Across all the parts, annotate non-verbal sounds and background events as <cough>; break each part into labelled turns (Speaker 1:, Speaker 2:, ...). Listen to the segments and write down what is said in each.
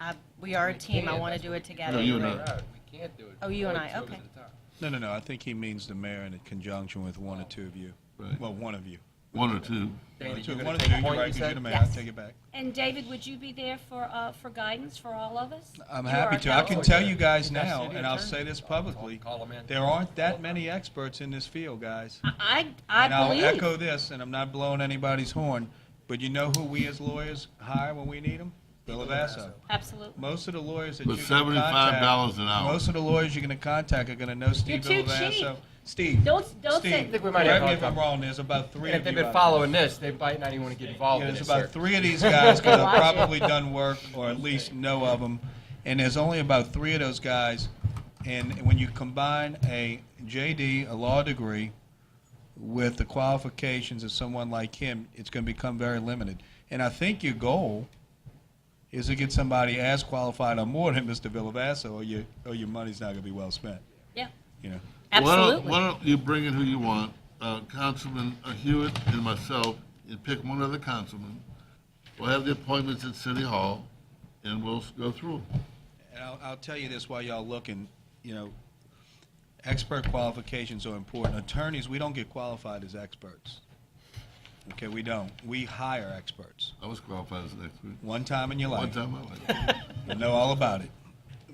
Speaker 1: I, Uh, we are a team, I want to do it
Speaker 2: No,
Speaker 3: Oh,
Speaker 1: together.
Speaker 2: you and
Speaker 4: No,
Speaker 2: I.
Speaker 4: no, We can't do it.
Speaker 1: Oh, you and I,
Speaker 4: Two is
Speaker 1: okay.
Speaker 4: at a time.
Speaker 3: No, no, no, I think he means the mayor in conjunction with one or two of you.
Speaker 2: Right.
Speaker 3: Well, one of you.
Speaker 2: One or two.
Speaker 3: One or
Speaker 4: Dana,
Speaker 3: two,
Speaker 4: you
Speaker 3: one
Speaker 4: gonna
Speaker 3: or two,
Speaker 4: take a
Speaker 3: you're
Speaker 4: point,
Speaker 3: right,
Speaker 4: you
Speaker 3: 'cause you're
Speaker 4: said?
Speaker 3: the mayor, I take it back.
Speaker 5: And David, would you be there for, uh, for guidance for all of us?
Speaker 3: I'm
Speaker 5: You are
Speaker 3: happy
Speaker 5: a
Speaker 3: to. I can
Speaker 5: counselor.
Speaker 3: tell you guys
Speaker 4: That's
Speaker 3: now,
Speaker 4: city
Speaker 3: and I'll
Speaker 4: attorney.
Speaker 3: say this
Speaker 4: I'll- I'll
Speaker 3: publicly,
Speaker 4: call him in.
Speaker 3: there aren't that many experts in this field, guys.
Speaker 5: I, I
Speaker 3: And I'll
Speaker 5: I believe,
Speaker 3: echo this, and I'm not blowing anybody's horn, but you know who we as lawyers hire when we need them? Bill Avasso.
Speaker 5: absolutely.
Speaker 3: Most of the lawyers that
Speaker 2: For
Speaker 3: you're gonna
Speaker 2: seventy-five
Speaker 3: contact,
Speaker 2: dollars an hour.
Speaker 3: most of the lawyers you're gonna contact are gonna know Steve
Speaker 5: too
Speaker 3: Bill Avasso. Steve,
Speaker 5: Don't, don't
Speaker 3: Steve,
Speaker 5: say,
Speaker 4: think we might have
Speaker 3: correct me
Speaker 4: a-
Speaker 3: if I'm wrong, there's about three
Speaker 4: And if
Speaker 3: of you.
Speaker 4: they've been
Speaker 3: out there.
Speaker 4: following this, they might not even want to get involved
Speaker 3: Yeah,
Speaker 4: in
Speaker 3: there's
Speaker 4: this,
Speaker 3: about
Speaker 4: sir.
Speaker 3: three of these guys that
Speaker 5: <laughs> Watch
Speaker 3: have
Speaker 5: it.
Speaker 3: probably done work, or at least know of them, and there's only about three of those guys. And when you combine a JD, a law degree, with the qualifications of someone like him, it's going to become very limited. And I think your goal is to get somebody as qualified or more than Mr. Villavasso, or your, or your money's not going to be well spent,
Speaker 5: yeah,
Speaker 3: you know.
Speaker 2: Why don't, why
Speaker 5: absolutely.
Speaker 2: don't you bring in who you want, uh, Councilman Hewitt and myself, and pick one other councilman. We'll have the appointments at City Hall, and we'll s- go through. 'em.
Speaker 3: And I'll, I'll tell you this while y'all looking, you know, expert qualifications are important. Attorneys, we don't get qualified as experts. Okay, we don't. We hire experts.
Speaker 2: I was qualified as an expert.
Speaker 3: One time in your
Speaker 2: One
Speaker 3: life,
Speaker 2: time in my life,
Speaker 3: you know all about
Speaker 2: <laughs>
Speaker 3: it.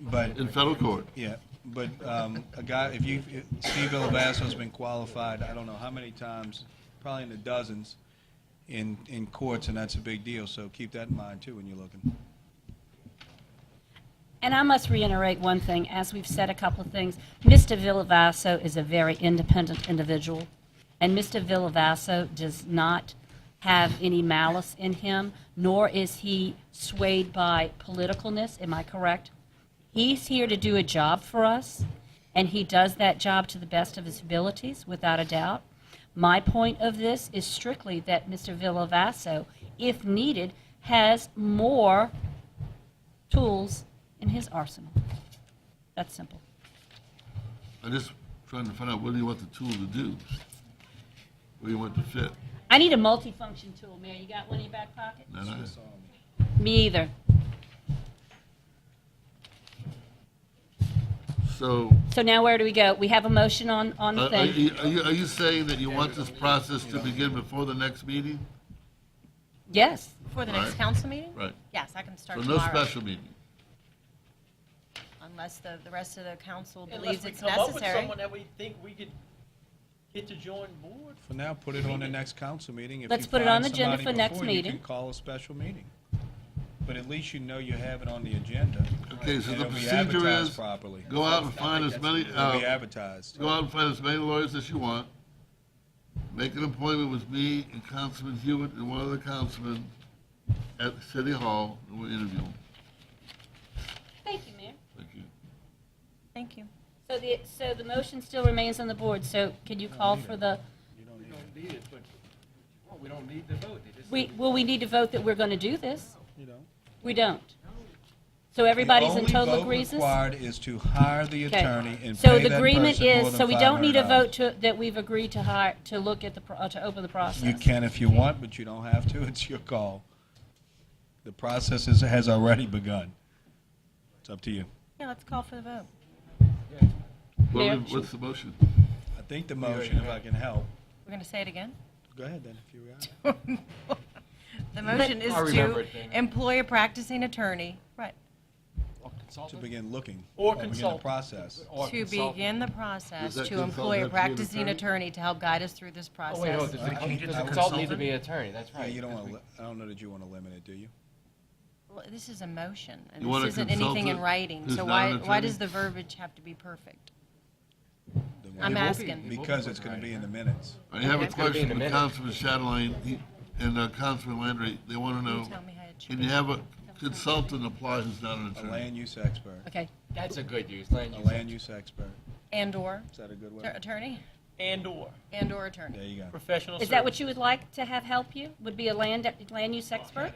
Speaker 3: But,
Speaker 2: in federal court.
Speaker 3: yeah, but um, a guy, if you, if Steve Villavasso's been qualified, I don't know how many times, probably in the dozens, in, in courts, and that's a big deal, so keep that in mind too when you're looking.
Speaker 5: And I must reiterate one thing, as we've said a couple of things, Mr. Villavasso is a very independent individual, and Mr. Villavasso does not have any malice in him, nor is he swayed by politicalness, am I correct? He's here to do a job for us, and he does that job to the best of his abilities, without a doubt. My point of this is strictly that Mr. Villavasso, if needed, has more tools in his arsenal. That's simple.
Speaker 2: I'm just trying to find out, what do you want the tool to do? Where you want to fit?
Speaker 5: I need a multifunction tool, Mayor. You got one in your back pocket?
Speaker 2: Not I.
Speaker 5: Me either.
Speaker 2: So, uh,
Speaker 5: So now where do we go? We have a motion on, on
Speaker 3: Uh,
Speaker 5: the
Speaker 2: are are
Speaker 5: thing.
Speaker 2: you, are you- are you saying that you want this process to begin before the next meeting?
Speaker 5: Yes.
Speaker 1: For the next
Speaker 2: Right.
Speaker 1: council meeting?
Speaker 2: Right.
Speaker 1: Yes, I can
Speaker 2: So
Speaker 1: start
Speaker 2: no
Speaker 1: tomorrow,
Speaker 2: special meeting?
Speaker 1: unless the, the rest of the council believes
Speaker 6: Unless we
Speaker 1: it's
Speaker 6: come up with
Speaker 1: necessary.
Speaker 6: someone that we think we could get to join board.
Speaker 3: For now, put it on the next council meeting. If
Speaker 5: Let's
Speaker 3: you
Speaker 5: put it
Speaker 3: find
Speaker 5: on the agenda
Speaker 3: somebody
Speaker 5: for next
Speaker 3: before, you
Speaker 5: meeting.
Speaker 3: can call a special meeting. But at least you know you have it on the agenda.
Speaker 2: Okay, so
Speaker 3: and
Speaker 2: the
Speaker 3: it'll be
Speaker 2: procedure
Speaker 3: advertised
Speaker 2: is,
Speaker 3: Properly.
Speaker 2: go out and find as many,
Speaker 3: It'll be
Speaker 2: uh,
Speaker 3: advertised.
Speaker 2: go out and find as many lawyers as you want. Make an appointment with me and Councilman Hewitt and one other councilman at City Hall, and we'll interview them.
Speaker 5: Thank you, Mayor.
Speaker 2: Thank you.
Speaker 1: Thank you.
Speaker 5: So the, so the motion still remains on the board, so can you call for the,
Speaker 4: We don't need it, but, well, we don't need the vote. They just-
Speaker 5: we, will we need to vote that we're going to do this?
Speaker 3: You know.
Speaker 5: We don't. So everybody's in total
Speaker 3: The
Speaker 5: agreement?
Speaker 3: only vote required is to hire the
Speaker 5: Okay.
Speaker 3: attorney and
Speaker 5: So
Speaker 3: pay
Speaker 5: the
Speaker 3: that
Speaker 5: agreement
Speaker 3: person more
Speaker 5: is,
Speaker 3: than
Speaker 5: so we don't need a
Speaker 3: $500.
Speaker 5: vote to, that we've agreed to hire, to look at the, pro- uh, to open the process.
Speaker 3: You can if you want, but you don't have to. <laughs> It's your call. The process is, has already begun. It's up to you.
Speaker 1: Yeah, let's call for the vote.
Speaker 2: What
Speaker 5: Mayor?
Speaker 2: we- What's the motion?
Speaker 3: I think the motion, if I can help,
Speaker 1: We're going to say it again? <laughs>
Speaker 3: go ahead then, if you got it.
Speaker 2: <laughs>
Speaker 1: The motion is
Speaker 4: I
Speaker 1: to
Speaker 4: remember it, Dana.
Speaker 1: employ a practicing attorney, right,
Speaker 4: Or
Speaker 3: To
Speaker 4: consultant?
Speaker 3: begin looking.
Speaker 6: Or
Speaker 3: Begin the
Speaker 6: consultant.
Speaker 3: process.
Speaker 4: Or
Speaker 1: to
Speaker 4: consultant.
Speaker 1: begin the process,
Speaker 2: Does that
Speaker 1: to employ a
Speaker 2: consultant have to be an
Speaker 1: practicing
Speaker 2: attorney?
Speaker 1: attorney to help guide us through this
Speaker 4: Oh, wait, no,
Speaker 1: process.
Speaker 4: does
Speaker 3: I- I think
Speaker 4: the-
Speaker 3: it's
Speaker 4: does
Speaker 3: a
Speaker 4: the consultant need to
Speaker 3: consultant.
Speaker 4: be an attorney? That's
Speaker 3: Yeah,
Speaker 4: right.
Speaker 3: you don't
Speaker 4: because
Speaker 3: want
Speaker 4: we-
Speaker 3: to, I don't know that you want to limit it, do you?
Speaker 1: Well, This is a motion, and
Speaker 2: You want a
Speaker 1: this isn't anything in
Speaker 2: consultant
Speaker 1: writing,
Speaker 2: who's
Speaker 1: so
Speaker 2: not
Speaker 1: why,
Speaker 2: an
Speaker 1: why
Speaker 2: attorney?
Speaker 1: does the verbiage have to be perfect?
Speaker 3: Then
Speaker 1: I'm
Speaker 3: why-
Speaker 4: won't be.
Speaker 1: asking.
Speaker 4: It won't
Speaker 3: Because
Speaker 4: be
Speaker 3: it's going to be
Speaker 4: right.
Speaker 3: in the minutes.
Speaker 2: I have a
Speaker 4: It's gonna be in
Speaker 2: question
Speaker 4: the
Speaker 2: for
Speaker 4: minute.
Speaker 2: Councilman Chatelain He- and uh, Councilman Landry. They want to
Speaker 1: Can you
Speaker 2: know,
Speaker 1: tell me how it should
Speaker 2: can you
Speaker 1: be?
Speaker 2: have a consultant apply who's not an
Speaker 3: A
Speaker 2: attorney?
Speaker 3: land use expert,
Speaker 5: Okay.
Speaker 4: That's a good use, land
Speaker 3: a
Speaker 4: use.
Speaker 3: land use expert.
Speaker 1: And/or
Speaker 3: Is that a good
Speaker 1: Tur-
Speaker 3: way?
Speaker 1: attorney,
Speaker 6: And/or
Speaker 1: and/or attorney.
Speaker 3: There you go.
Speaker 6: professional
Speaker 5: Is that what you would like to have help you? Would be a land, land use expert?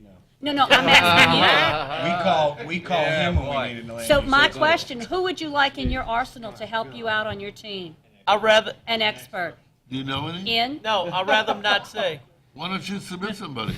Speaker 3: No.
Speaker 5: No, no, I'm
Speaker 4: Uh-huh.
Speaker 5: asking
Speaker 3: We call, we call
Speaker 6: Uh, Yeah,
Speaker 3: him when
Speaker 6: boy.
Speaker 3: we need a <laughs>
Speaker 5: you.
Speaker 3: land
Speaker 5: So
Speaker 3: use.
Speaker 5: my question, who would you like in your arsenal to help you out on your team?
Speaker 6: i rather,
Speaker 5: An expert
Speaker 2: Do you know any?
Speaker 5: in?
Speaker 6: no, I'd rather them not say.
Speaker 2: Why don't you submit somebody?